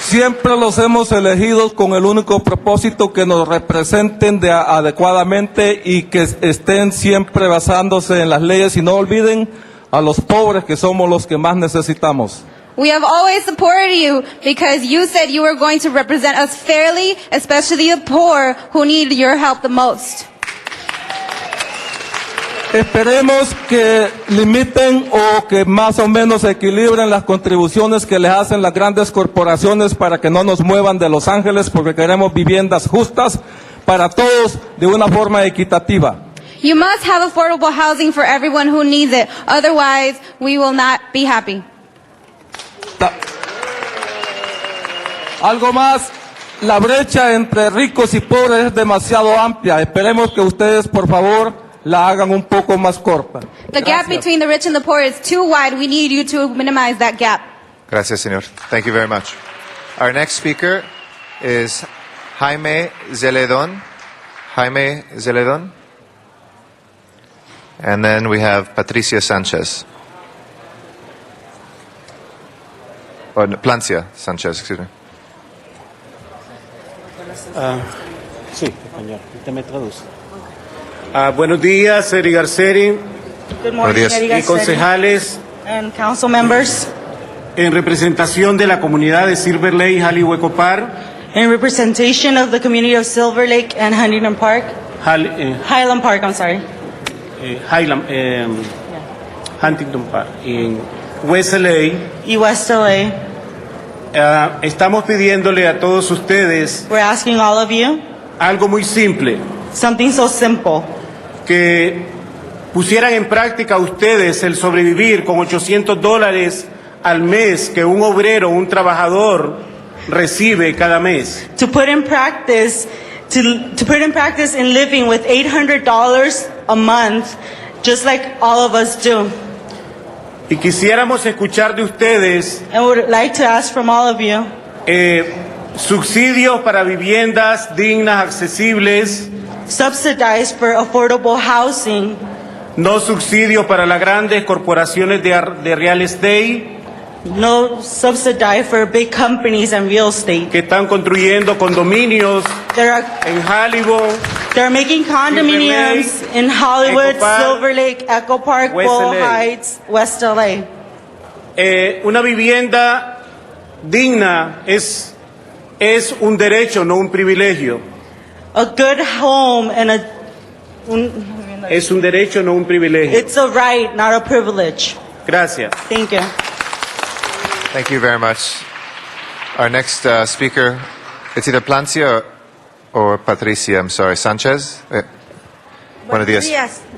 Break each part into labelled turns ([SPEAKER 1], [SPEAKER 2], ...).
[SPEAKER 1] Siempre los hemos elegido con el único propósito que nos representen de- adecuadamente y que estén siempre basándose en las leyes y no olviden a los pobres que somos los que más necesitamos.
[SPEAKER 2] We have always supported you because you said you were going to represent us fairly, especially the poor who need your help the most.
[SPEAKER 1] Esperemos que limiten o que más o menos equilibren las contribuciones que les hacen las grandes corporaciones para que no nos muevan de Los Ángeles porque queremos viviendas justas para todos de una forma equitativa.
[SPEAKER 2] You must have affordable housing for everyone who needs it. Otherwise, we will not be happy.
[SPEAKER 1] Ta- Algo más, la brecha entre ricos y pobres es demasiado amplia. Esperemos que ustedes, por favor, la hagan un poco más corta.
[SPEAKER 2] The gap
[SPEAKER 1] Gracias.
[SPEAKER 2] between the rich and the poor is too wide. We need you to minimize that gap.
[SPEAKER 3] Gracias, señor. Thank you very much. Our next speaker is Jaime Zeledon. Jaime Zeledon. And then we have Patricia Sanchez. Or Oh, no, Plancia Sanchez, excuse me.
[SPEAKER 4] Sí, español. Usted me traduce.
[SPEAKER 5] Ah, buenos días, Eri Garceri
[SPEAKER 6] Good morning,
[SPEAKER 3] Buenos días.
[SPEAKER 6] Eddie
[SPEAKER 5] y
[SPEAKER 6] Garcetti
[SPEAKER 5] concejales
[SPEAKER 6] and council members.
[SPEAKER 5] en representación de la comunidad de Silver Lake, Jali Hueco Park,
[SPEAKER 6] In representation of the community of Silver Lake and Huntington Park,
[SPEAKER 5] Jal- eh,
[SPEAKER 6] Highland Park, I'm sorry,
[SPEAKER 5] eh, Highland, eh, Huntington Park, en West LA,
[SPEAKER 6] E West LA,
[SPEAKER 5] ah, estamos pidiéndole a todos ustedes
[SPEAKER 6] we're asking all of you
[SPEAKER 5] algo muy simple,
[SPEAKER 6] something so simple
[SPEAKER 5] que pusieran en práctica ustedes el sobrevivir con 800 dólares al mes que un obrero, un trabajador recibe cada mes.
[SPEAKER 6] to put in practice, to, to put in practice in living with $800 a month, just like all of us do.
[SPEAKER 5] Y quisiéramos escuchar de ustedes
[SPEAKER 6] And would like to ask from all of you
[SPEAKER 5] eh, subsidios para viviendas dignas, accesibles,
[SPEAKER 6] subsidize for affordable housing,
[SPEAKER 5] no subsidios para las grandes corporaciones de, ar- de real estate
[SPEAKER 6] no subsidize for big companies and real estate.
[SPEAKER 5] que están construyendo condominios
[SPEAKER 6] There are
[SPEAKER 5] en Hollywood,
[SPEAKER 6] They're making condominiums
[SPEAKER 5] Silver Lake,
[SPEAKER 6] in Hollywood,
[SPEAKER 5] Echo Park,
[SPEAKER 6] Silver Lake, Echo Park,
[SPEAKER 5] West
[SPEAKER 6] Boyle
[SPEAKER 5] LA.
[SPEAKER 6] Heights, West LA.
[SPEAKER 5] eh, una vivienda digna es, es un derecho, no un privilegio.
[SPEAKER 6] A good home and a, un-
[SPEAKER 5] Es un derecho, no un privilegio.
[SPEAKER 6] it's a right, not a privilege.
[SPEAKER 5] Gracias.
[SPEAKER 6] Thank you.
[SPEAKER 3] Thank you very much. Our next uh, speaker, it's either Plancia or, or Patricia, I'm sorry, Sanchez. Eh, buenos días.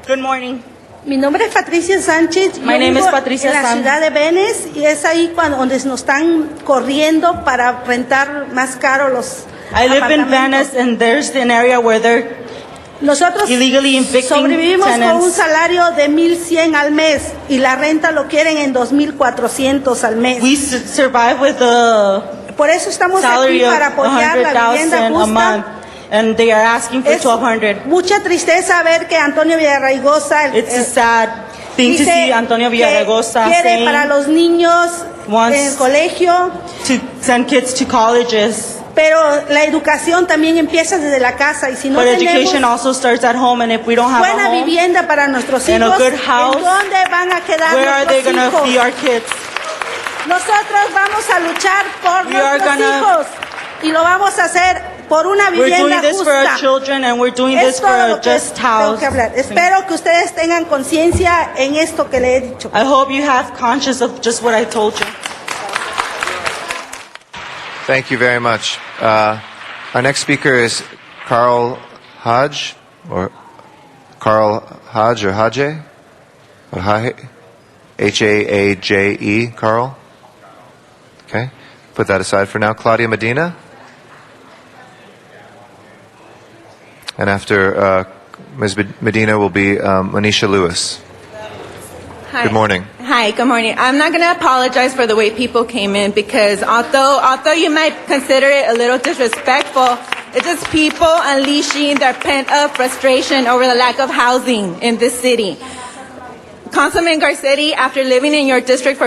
[SPEAKER 6] Good morning.
[SPEAKER 7] Mi nombre es Patricia Sánchez.
[SPEAKER 6] My
[SPEAKER 7] Yo
[SPEAKER 6] name
[SPEAKER 7] vivo
[SPEAKER 6] is Patricia
[SPEAKER 7] en la
[SPEAKER 6] Sánchez.
[SPEAKER 7] ciudad de Venice y es ahí cuando donde nos están corriendo para rentar más caro los
[SPEAKER 6] I live in
[SPEAKER 7] apartamentos.
[SPEAKER 6] Venice and there's an area where they're,
[SPEAKER 7] Nosotros
[SPEAKER 6] Illegally evicting
[SPEAKER 7] sobrevivimos con
[SPEAKER 6] tenants.
[SPEAKER 7] un salario de 1100 al mes y la renta lo quieren en 2400 al mes.
[SPEAKER 6] we su- survive with a
[SPEAKER 7] Por eso estamos aquí
[SPEAKER 6] salary of
[SPEAKER 7] para apoyar la
[SPEAKER 6] 100,000
[SPEAKER 7] vivienda
[SPEAKER 6] a month.
[SPEAKER 7] justa.
[SPEAKER 6] And they are asking for
[SPEAKER 7] Es
[SPEAKER 6] 1,200.
[SPEAKER 7] mucha tristeza ver que Antonio Villarraigosa el-
[SPEAKER 6] It's a
[SPEAKER 7] el-
[SPEAKER 6] sad thing to
[SPEAKER 7] Eh, Dice
[SPEAKER 6] see Antonio
[SPEAKER 7] que
[SPEAKER 6] Villaraigosa
[SPEAKER 7] quiere
[SPEAKER 6] saying
[SPEAKER 7] para los niños
[SPEAKER 6] wants-
[SPEAKER 7] en el colegio,
[SPEAKER 6] to send kids to colleges.
[SPEAKER 7] pero la educación también empieza desde la casa y si no
[SPEAKER 6] But
[SPEAKER 7] tenemos
[SPEAKER 6] education also starts at home, and if we don't have a
[SPEAKER 7] buena
[SPEAKER 6] home,
[SPEAKER 7] vivienda para nuestros
[SPEAKER 6] and a
[SPEAKER 7] hijos,
[SPEAKER 6] good house,
[SPEAKER 7] ¿en dónde van a quedar
[SPEAKER 6] where are they going
[SPEAKER 7] nuestros
[SPEAKER 6] to
[SPEAKER 7] hijos?
[SPEAKER 6] feed our kids?
[SPEAKER 7] Nosotros vamos a luchar por
[SPEAKER 6] We are
[SPEAKER 7] nuestros
[SPEAKER 6] gonna-
[SPEAKER 7] hijos y lo vamos a hacer por una
[SPEAKER 6] We're doing
[SPEAKER 7] vivienda
[SPEAKER 6] this for
[SPEAKER 7] justa.
[SPEAKER 6] our children, and we're doing
[SPEAKER 7] Es
[SPEAKER 6] this for
[SPEAKER 7] todo lo
[SPEAKER 6] a
[SPEAKER 7] que
[SPEAKER 6] just
[SPEAKER 7] tengo
[SPEAKER 6] house.
[SPEAKER 7] que hablar. Espero que ustedes tengan conciencia en esto que le he dicho.
[SPEAKER 6] I hope you have conscious of just what I told you.
[SPEAKER 3] Thank you very much. Uh, our next speaker is Carl Hodge, or Carl Hodge, or Haje, or Haje, H A A J E, Carl. Okay, put that aside for now. Claudia Medina, and after uh, Ms. Med- Medina will be um, Manisha Lewis.
[SPEAKER 8] Hi.
[SPEAKER 3] Good morning.
[SPEAKER 8] Hi, good morning. I'm not going to apologize for the way people came in because although although you might consider it a little disrespectful, it's just people unleashing their pent-up frustration over the lack of housing in this city. Councilman Garcetti, after living in your district for